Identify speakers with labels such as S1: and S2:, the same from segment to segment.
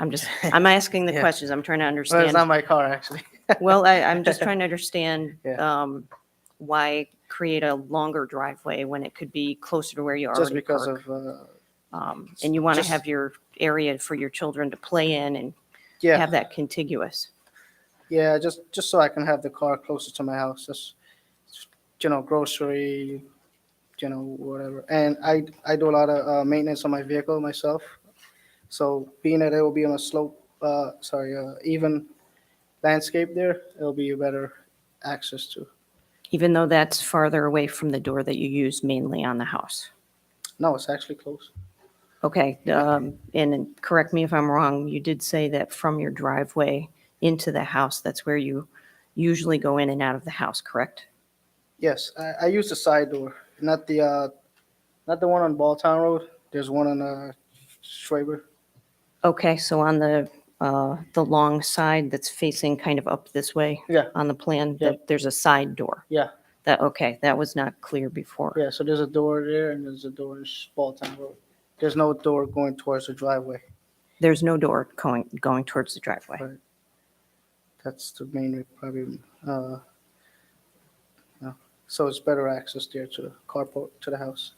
S1: I'm just, I'm asking the
S2: Yeah.
S1: questions. I'm trying to
S2: Well, it's not
S1: understand.
S2: my car, actually.
S1: Well, I, I'm just trying to understand,
S2: Yeah.
S1: um, why create a longer driveway when it could be closer to where you
S2: Just
S1: already
S2: because
S1: park?
S2: of, uh,
S1: Um, and you want to
S2: just-
S1: have your area for your children to play in and
S2: yeah,
S1: have that contiguous.
S2: yeah, just, just so I can have the car closer to my house, just, you know, grocery, you know, whatever. And I, I do a lot of, uh, maintenance on my vehicle myself. So being that it will be on a slope, uh, sorry, uh, even landscape there, it'll be a better access to.
S1: Even though that's farther away from the door that you use mainly on the house.
S2: No, it's actually close.
S1: Okay, um, and then correct me if I'm wrong, you did say that from your driveway into the house, that's where you usually go in and out of the house, correct?
S2: Yes, I, I use the side door, not the, uh, not the one on Balltown Road. There's one on, uh, Schwaber.
S1: Okay, so on the, uh, the long side that's facing kind of up this way?
S2: Yeah.
S1: On the plan,
S2: Yeah.
S1: that there's a side door?
S2: Yeah.
S1: That, okay, that was not clear before.
S2: Yeah, so there's a door there and there's a door in Balltown Road. There's no door going towards the driveway.
S1: There's no door going, going towards the driveway.
S2: Right. That's the main, re- probably, uh, no. so it's better access there to the carport, to the house.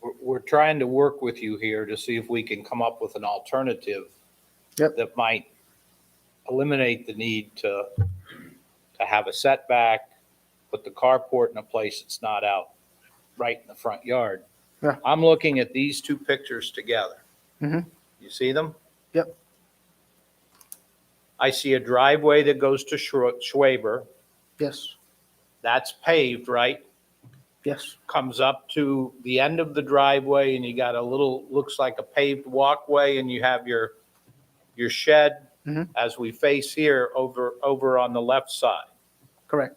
S3: We're, we're trying to work with you here to see if we can come up with an alternative
S2: Yep.
S3: that might eliminate the need to, to have a setback, put the carport in a place that's not out right in the front yard.
S2: Yeah.
S3: I'm looking at these two pictures together.
S2: Mhm.
S3: You see them?
S2: Yep.
S3: I see a driveway that goes to Schwa- Schwaber.
S2: Yes,
S3: That's paved, right?
S2: yes,
S3: comes up to the end of the driveway and you got a little, looks like a paved walkway and you have your, your shed
S2: Mhm.
S3: as we face here over, over on the left side.
S2: correct.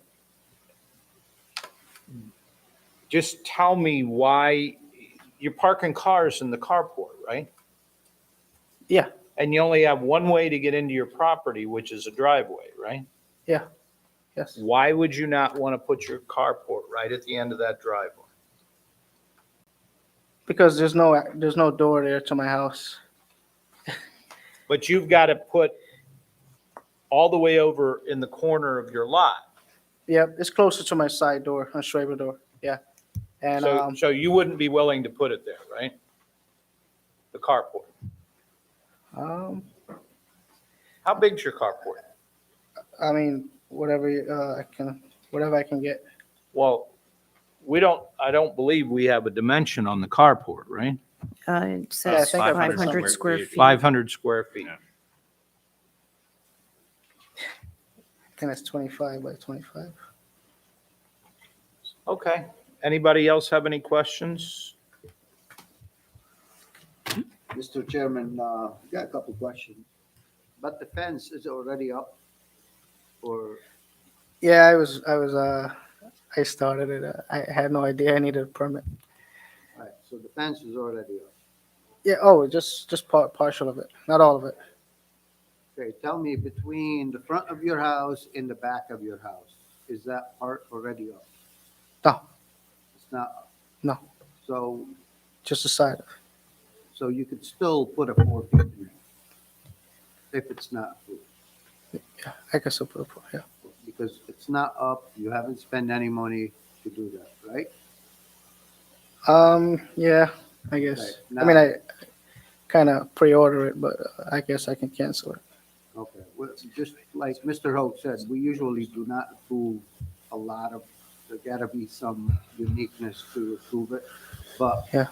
S3: Just tell me why, you're parking cars in the carport, right?
S2: Yeah,
S3: And you only have one way to get into your property, which is a driveway, right?
S2: yeah, yes.
S3: Why would you not want to put your carport right at the end of that driveway?
S2: Because there's no, ac- there's no door there to my house.
S3: But you've got to put all the way over in the corner of your lot.
S2: Yep, it's closer to my side door, on Schwaber door, yeah. And,
S3: So,
S2: um,
S3: so you wouldn't be willing to put it there, right? The carport.
S2: um,
S3: How big's your carport?
S2: I mean, whatever, uh, I can, whatever I can get.
S3: Well, we don't, I don't believe we have a dimension on the carport, right?
S1: Uh, it
S2: Yeah, I
S1: says
S2: think I put
S1: 500
S2: somewhere
S1: square feet.
S3: Five hundred square feet.
S4: Yeah.
S2: I think that's twenty-five by twenty-five.
S3: Okay. Anybody else have any questions?
S5: Mr. Chairman, uh, got a couple questions. But the fence is already up or,
S2: Yeah, I was, I was, uh, I started it. uh, I had no idea I needed a permit.
S5: all right, so the fence is already up.
S2: Yeah, oh, just, just part, partial of it, not all of it.
S5: Okay, tell me between the front of your house and the back of your house, is that part already up?
S2: No,
S5: It's not? up.
S2: No.
S5: So,
S2: just the side.
S5: so you could still put a four feet in there? If it's not, approved.
S2: I guess I'll put it, yeah.
S5: because it's not up, you haven't spent any money to do that, right?
S2: Um, yeah, I guess.
S5: Right,
S2: I mean, I kind of pre-order it, but uh, I guess I can cancel it.
S5: Okay, well, just like Mr. Hope said, we usually do not approve a lot of, there gotta be some uniqueness to approve it, but.
S2: Yeah.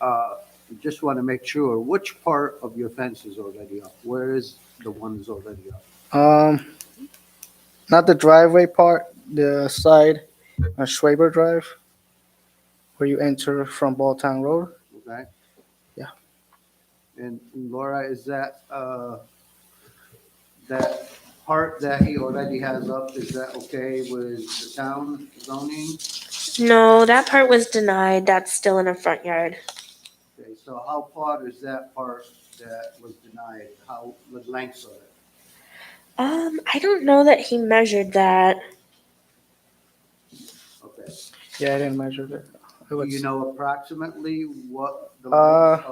S5: Uh, just wanna make sure, which part of your fence is already up? Where is the one that's already up?
S2: Um, not the driveway part, the side on Schwaber Drive, where you enter from Balltown Road.
S5: Okay?
S2: Yeah.
S5: And Laura, is that, uh, that part that he already has up, is that okay with the town zoning?
S6: No, that part was denied. That's still in a front yard.
S5: Okay, so how far is that part that was denied? How, the length of it?
S6: Um, I don't know that he measured that.
S5: Okay.
S2: Yeah, I didn't measure that. It
S5: Do
S2: was-
S5: you know approximately what the
S2: Uh,
S5: length